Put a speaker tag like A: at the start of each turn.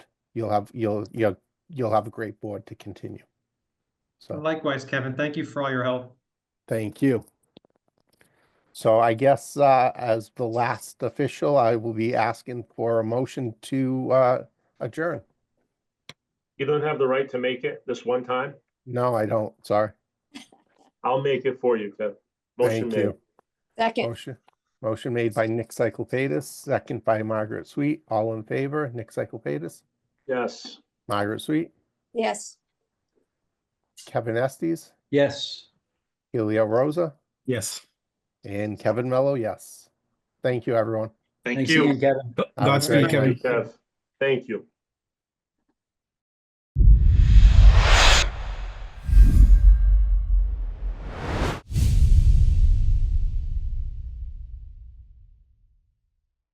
A: you'll have, you'll, you'll, you'll have a great board to continue. So,
B: Likewise, Kevin, thank you for all your help.
A: thank you. So I guess, uh, as the last official, I will be asking for a motion to, uh, adjourn.
C: You don't have the right to make it this one time.
A: No, I don't, sorry.
C: I'll make it for you, Cliff. Motion
A: Thank
C: made.
A: you.
D: Second,
A: Motion, motion made by Nick Cyclepatis, second by Margaret Sweet. All in favor, Nick Cyclepatis,
C: Yes.
A: Margaret Sweet,
D: yes.
A: Kevin Estes,
E: Yes.
A: Helio Rosa,
F: Yes.
A: and Kevin Mello, yes. Thank you, everyone.
E: Thank you, again, Kevin.
F: Godspeed,
A: Thank you.
F: Kevin.
C: Kev, Thank you.